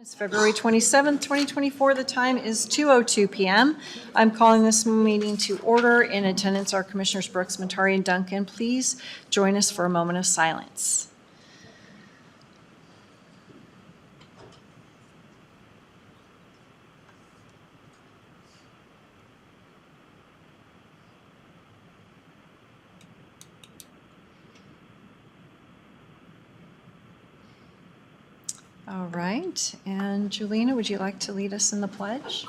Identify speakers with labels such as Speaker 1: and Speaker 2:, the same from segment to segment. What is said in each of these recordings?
Speaker 1: It's February 27th, 2024. The time is 2:02 PM. I'm calling this meeting to order. In attendance are Commissioners Brooks, Matari, and Duncan. Please join us for a moment of silence. All right, and Julina, would you like to lead us in the pledge?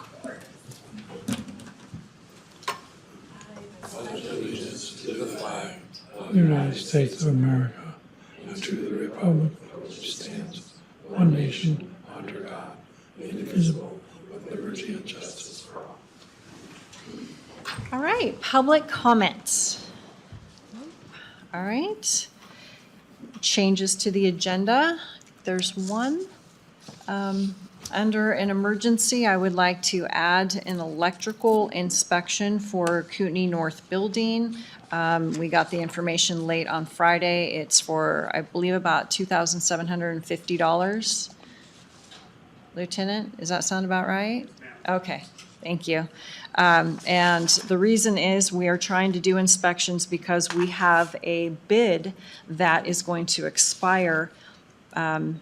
Speaker 2: the United States of America and to the republic for which it stands one nation under God, indivisible, with liberty and justice for all.
Speaker 1: All right, public comments. All right. Changes to the agenda. There's one. Um, Under an emergency, I would like to add an electrical inspection for Kootenai North Building. Um, We got the information late on Friday. It's for, I believe, about $2,750. Lieutenant, does that sound about right? Okay, thank you. Um, And the reason is, we are trying to do inspections because we have a bid that is going to expire um,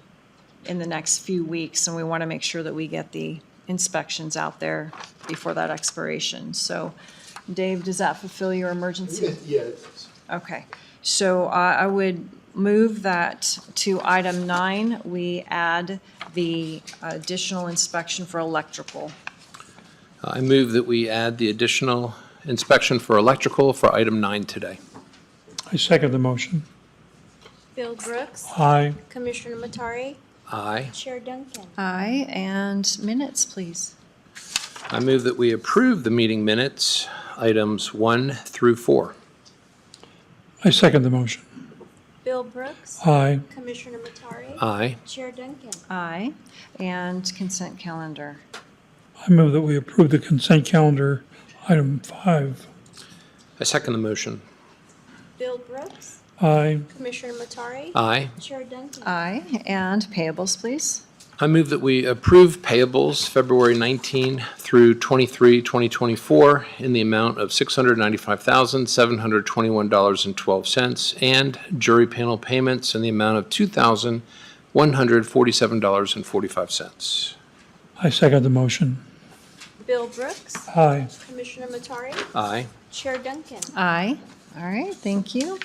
Speaker 1: in the next few weeks, and we want to make sure that we get the inspections out there before that expiration. So, Dave, does that fulfill your emergency?
Speaker 3: Yes.
Speaker 1: Okay, so uh, I would move that to item nine, we add the additional inspection for electrical.
Speaker 4: I move that we add the additional inspection for electrical for item nine today.
Speaker 2: I second the motion.
Speaker 5: Bill Brooks,
Speaker 2: Aye.
Speaker 5: Commissioner Matari,
Speaker 4: Aye.
Speaker 5: Chair Duncan.
Speaker 1: Aye, and minutes, please.
Speaker 4: I move that we approve the meeting minutes, items one through four.
Speaker 2: I second the motion.
Speaker 5: Bill Brooks,
Speaker 2: Aye.
Speaker 5: Commissioner Matari,
Speaker 4: Aye.
Speaker 5: Chair Duncan.
Speaker 1: Aye, and consent calendar.
Speaker 2: I move that we approve the consent calendar, item five.
Speaker 4: I second the motion.
Speaker 5: Bill Brooks,
Speaker 2: Aye.
Speaker 5: Commissioner Matari,
Speaker 4: Aye.
Speaker 5: Chair Duncan.
Speaker 1: Aye, and payables, please.
Speaker 4: I move that we approve payables February 19 through 23, 2024, in the amount of $695,721.12, and jury panel payments in the amount of $2,147.45.
Speaker 2: I second the motion.
Speaker 5: Bill Brooks,
Speaker 2: Aye.
Speaker 5: Commissioner Matari,
Speaker 4: Aye.
Speaker 5: Chair Duncan.
Speaker 1: Aye. All right, thank you.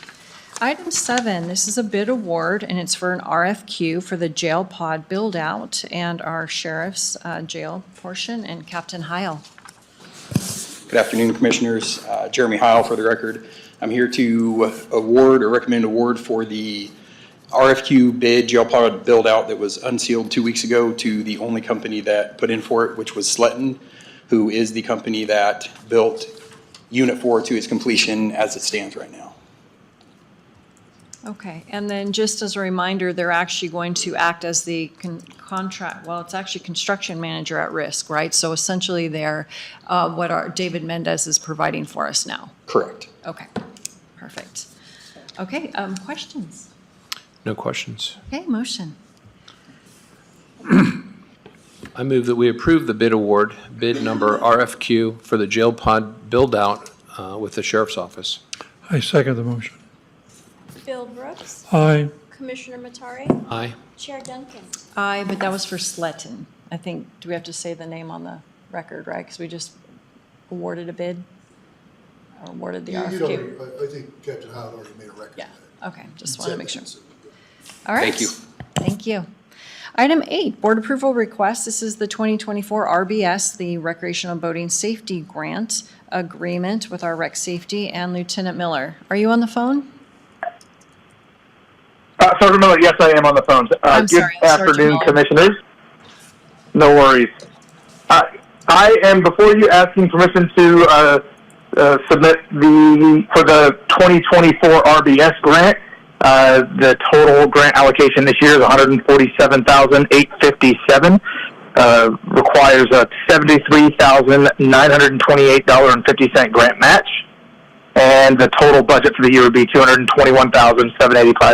Speaker 1: Item seven, this is a bid award, and it's for an RFQ for the jail pod build-out and our sheriff's uh, jail portion, and Captain Heil.
Speaker 6: Good afternoon, Commissioners. Uh, Jeremy Heil for the record. I'm here to award or recommend award for the RFQ bid jail pod build-out that was unsealed two weeks ago to the only company that put in for it, which was Sletton, who is the company that built Unit 4 to its completion as it stands right now.
Speaker 1: Okay, and then just as a reminder, they're actually going to act as the con- contract, well, it's actually construction manager at risk, right? So essentially, they're uh, what our, David Mendez is providing for us now.
Speaker 6: Correct.
Speaker 1: Okay, perfect. Okay, um, questions?
Speaker 4: No questions.
Speaker 1: Okay, motion.
Speaker 4: I move that we approve the bid award, bid number RFQ, for the jail pod build-out uh, with the sheriff's office.
Speaker 2: I second the motion.
Speaker 5: Bill Brooks,
Speaker 2: Aye.
Speaker 5: Commissioner Matari,
Speaker 4: Aye.
Speaker 5: Chair Duncan.
Speaker 1: Aye, but that was for Sletton. I think, do we have to say the name on the record, right? Because we just awarded a bid? Or Awarded the
Speaker 3: You- you'd already-
Speaker 1: RFQ?
Speaker 3: I I think Captain Howard already made a record. of
Speaker 1: Yeah,
Speaker 3: that.
Speaker 1: okay, just want to
Speaker 3: Said
Speaker 1: make
Speaker 3: that,
Speaker 1: sure.
Speaker 3: so we're good.
Speaker 1: All right.
Speaker 6: Thank you.
Speaker 1: Thank you. Item eight, board approval request. This is the 2024 RBS, the Recreational Boating Safety Grant Agreement with our Rec Safety and Lieutenant Miller. Are you on the phone?
Speaker 7: Uh, Sergeant Miller, yes, I am on the phone. Uh,
Speaker 1: I'm
Speaker 7: good
Speaker 1: sorry, Sergeant
Speaker 7: afternoon,
Speaker 1: Miller.
Speaker 7: commissioners. No worries. Uh, I am before you asking permission to uh, uh, submit the for the 2024 RBS grant. Uh, the total grant allocation this year is 147,857. Uh, requires a $73,928.50 grant match, and the total budget for the year would be 221,785.